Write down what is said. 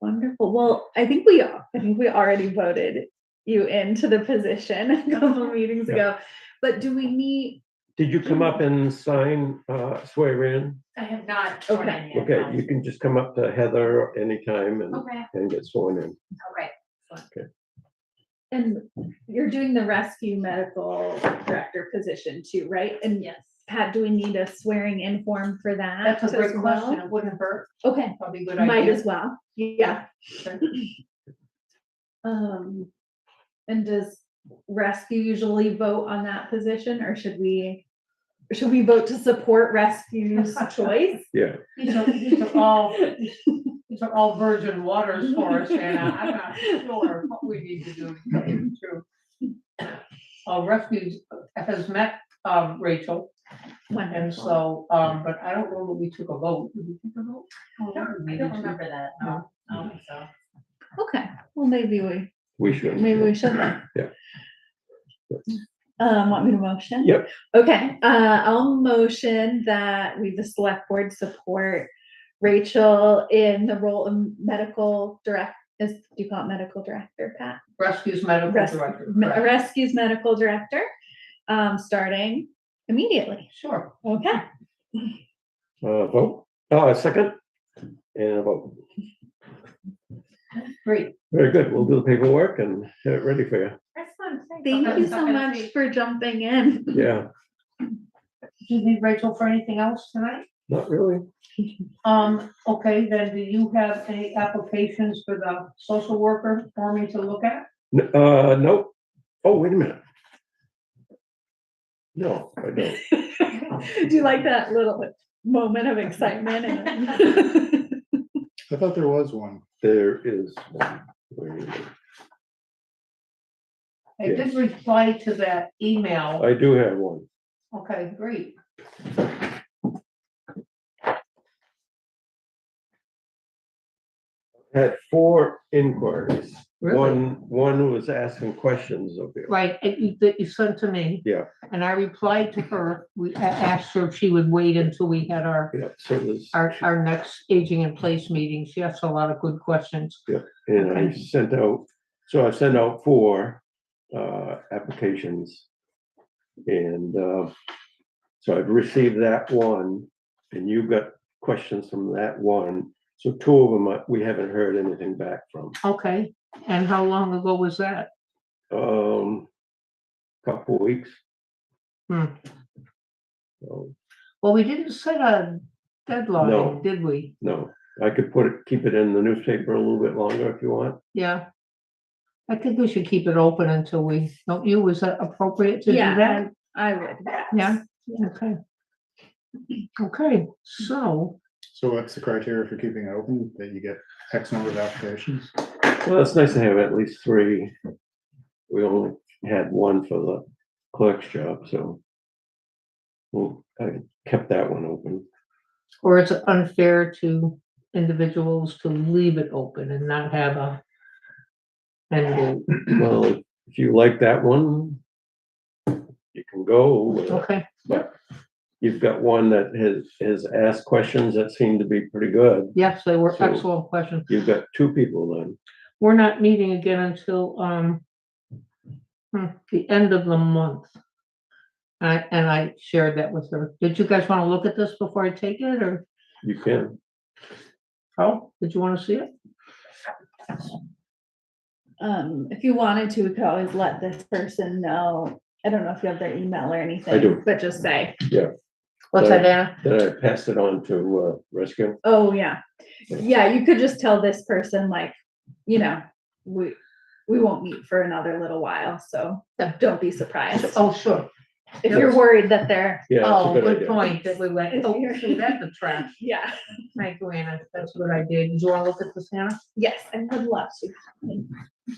Wonderful. Well, I think we are. I think we already voted you into the position a couple meetings Yeah. ago. But do we need, Did you come up and sign, uh, swear in? I have not sworn in yet. Okay, no. you can just come up to Heather anytime and, Okay, and get sworn in. all right. and you're doing the rescue medical director position too, right? And Yes. Pat, do we need a swearing in form for that? That's a as great well? question. It wouldn't hurt. Okay, Probably a good might idea. as well. Yeah. Sure. Um, and does rescue usually vote on that position or should we? Should we vote to support rescue's choice? Yeah, These are, these are all, these are all virgin waters for us, and I'm not sure what we need to do. to tell you the truth. Uh, Refuge has met, um, Rachel, and Wonderful. so, um, but I don't know that we took a vote. Did we take a vote? I don't I don't remember that. No, I don't think so. Okay, well, maybe we we should. Maybe we should then. Yeah. Um, want me to motion? Yep. Okay, uh, I'll motion that we, the select board, support Rachel in the role of medical direct, is, do you call it medical director, Pat? Rescue's medical Res- director. Me- correct. Rescues medical director, um, starting immediately. Sure. Okay. Uh, vote, uh, second? And a vote. Great. Very good. We'll do the paperwork and get it ready for you. Excellent, thanks. Thank you so Okay. much for jumping in. Yeah, Do you need Rachel for anything else tonight? not really. Um, okay, then do you have any applications for the social worker for me to look at? N- Uh, nope. Oh, wait a minute. No, I don't. Do you like that little moment of excitement? and- I thought there was one. There is one. Wait a minute. I did reply to that email. I do have one. Okay, great. Had four inquiries. Really? One, one was asking questions of you. Right, it- you- that you sent to me. Yeah. And I replied to her, we a- asked her if she would wait until we had our, Yeah, so there's, our, our next aging in place meeting. She asked a lot of good questions. and I sent out, so I sent out four uh, applications. And uh, so I've received that one, and you got questions from that one. So two of them, uh, we haven't heard anything back from. Okay, and how long ago was that? Um, Couple weeks. Hmm. So, Well, we didn't set a deadline, No. did we? no, I could put it, keep it in the newspaper a little bit longer if you want. Yeah. I think we should keep it open until we, don't you, is that appropriate to do Yeah, that? I would. yes. Yeah. Okay. Okay, so, So what's the criteria for keeping it open, that you get X number of applications? Well, it's nice to have at least three. We only had one for the clerk's job, so. Well, I kept that one open. or it's unfair to individuals to leave it open and not have a end date. Well, if you like that one, you can go. with it. Okay, You've got one that has, has asked questions that seem to be pretty good. yes, they were So- excellent questions. You've got two people then. We're not meeting again until, um, hmm, the end of the month. I, and I shared that with her. Did you guys want to look at this before I take it, or, You can, oh, did you want to see it? Um, if you wanted to, we could always let this person know. I don't know if you have their email or anything. do. But just say, What's that, Anna? then I passed it on to uh, rescue. oh, yeah. Yeah, you could just tell this person like, you know, we, we won't meet for another little while, so Yeah. don't be surprised. Oh, sure. If you're worried that they're, Yeah, Oh, that's a good good idea. point, that we went, oh, shoot, that's a trash. yeah, Thank you, Anna, that's what I did. Did you want to look at this, Anna? yes, I would love to.